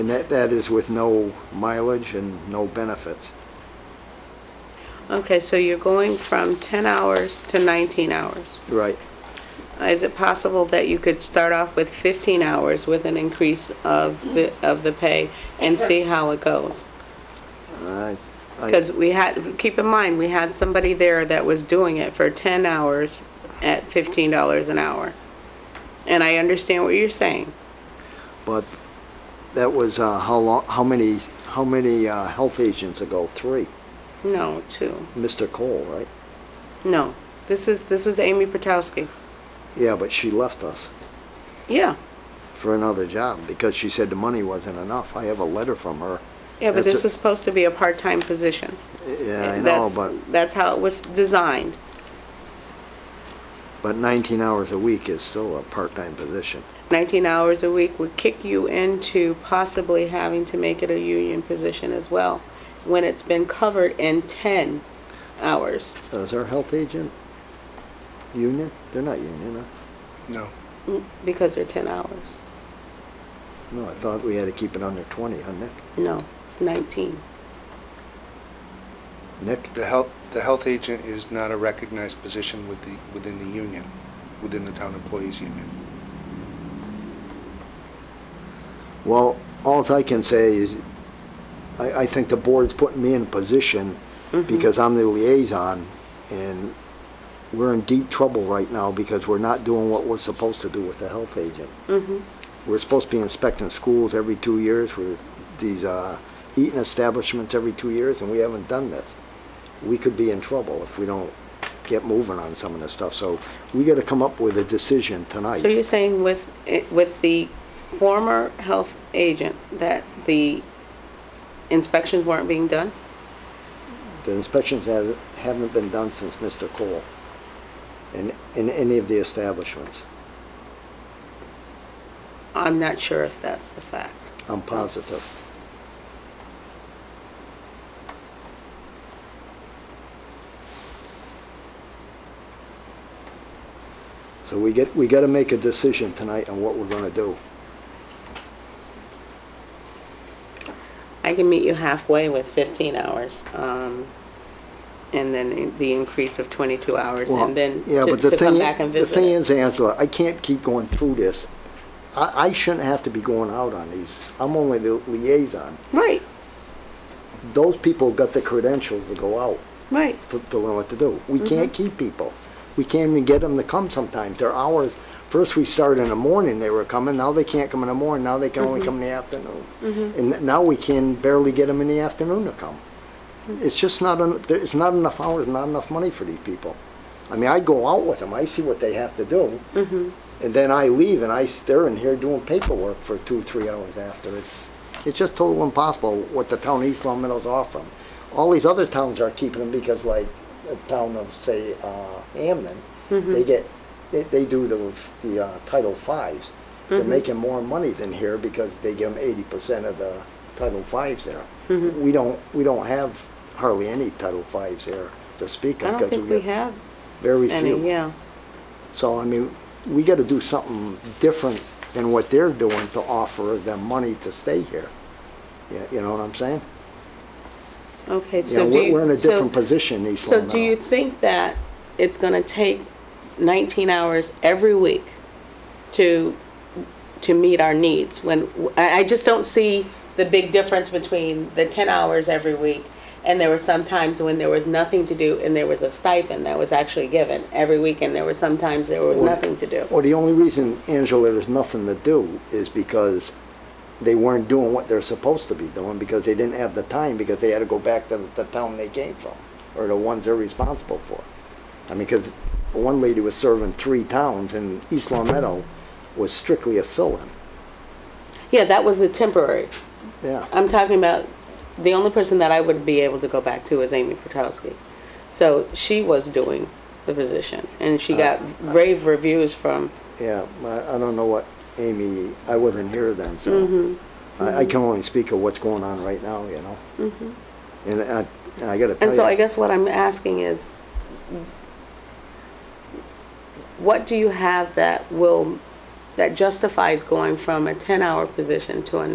And that, that is with no mileage and no benefits. Okay, so you're going from 10 hours to 19 hours. Right. Is it possible that you could start off with 15 hours with an increase of the, of the pay and see how it goes? I- I- Because we had, keep in mind, we had somebody there that was doing it for 10 hours at $15 an hour. And I understand what you're saying. But that was, uh, how long, how many, how many uh, health agents ago? Three. No, two. Mr. Cole, right? No. This is, this is Amy Potowski. Yeah, but she left us Yeah. for another job because she said the money wasn't enough. I have a letter from her. Yeah, but That's this a- is supposed to be a part-time position. Yeah, I know, That's- but, That's how it was designed. but 19 hours a week is still a part-time position. 19 hours a week would kick you into possibly having to make it a union position as well, when it's been covered in 10 hours. Is our health agent union? They're not union, huh? No. Because they're 10 hours. No, I thought we had to keep it under 20, huh, Nick? No, it's 19. Nick? The health, the health agent is not a recognized position with the, within the union, within the town employees union. Well, alls I can say is, I, I think the board's putting me in a position because I'm the liaison and we're in deep trouble right now because we're not doing what we're supposed to do with the health agent. We're supposed to be inspecting schools every two years with these, uh, eating establishments every two years and we haven't done this. We could be in trouble if we don't get moving on some of this stuff. So we gotta come up with a decision tonight. So you're saying with, with the former health agent, that the inspections weren't being done? The inspections ha- haven't been done since Mr. Cole in, in any of the establishments. I'm not sure if that's the fact. I'm positive. So we get, we gotta make a decision tonight on what we're gonna do. I can meet you halfway with 15 hours, um, and then the increase of 22 hours, and then yeah, to but the to thing, come back and The thing visit it. is, Angela, I can't keep going through this. I, I shouldn't have to be going out on these. I'm only the liaison. Right, Those people got the credentials to go out. right. to, to learn what to do. We can't keep people. We can't even get them to come sometimes. Their hours, first we started in the morning, they were coming, now they can't come in the morning, now they can only come in the afternoon. And now we can barely get them in the afternoon to come. It's just not, en- there- it's not enough hours, not enough money for these people. I mean, I go out with them, I see what they have to do. And then I leave and I, s- they're in here doing paperwork for two, three hours after. It's, it's just total impossible what the town of East Long Meadow's offering. All these other towns are keeping them because like the town of, say, uh, Hamden, they get, they, they do the, the uh, Title Fives. They're making more money than here because they give them eighty percent of the Title Fives there. We don't, we don't have hardly any Title Fives there to speak I of don't because think we we get have very few. any, yeah. So, I mean, we gotta do something different than what they're doing to offer them money to stay here. Yeah, You know what I'm saying? Okay, You know, so do we're you... we're in a so- different position, East So Long do you Meadow. think that it's going to take 19 hours every week to, to meet our needs? When, I, I just don't see the big difference between the 10 hours every week and there were some times when there was nothing to do and there was a stipend that was actually given every week and there were some times there was Or- nothing to do. Well, the only reason, Angela, there's nothing to do is because they weren't doing what they're supposed to be doing because they didn't have the time because they had to go back to the town they came from or the ones they're responsible for. I mean, because one lady was serving three towns and East Long Meadow was strictly a fill-in. Yeah, that was a temporary. Yeah. I'm talking about, the only person that I would be able to go back to is Amy Petrowski. So she was doing the position, and she got rave reviews from, Yeah, I, I don't know what Amy, I wasn't here then, so Mm-hmm, I, I can only speak of what's going on right now, you know? And I, and I gotta Mm-hmm. and so tell I you, guess what I'm asking is, what do you have that will, that justifies going from a 10-hour position to a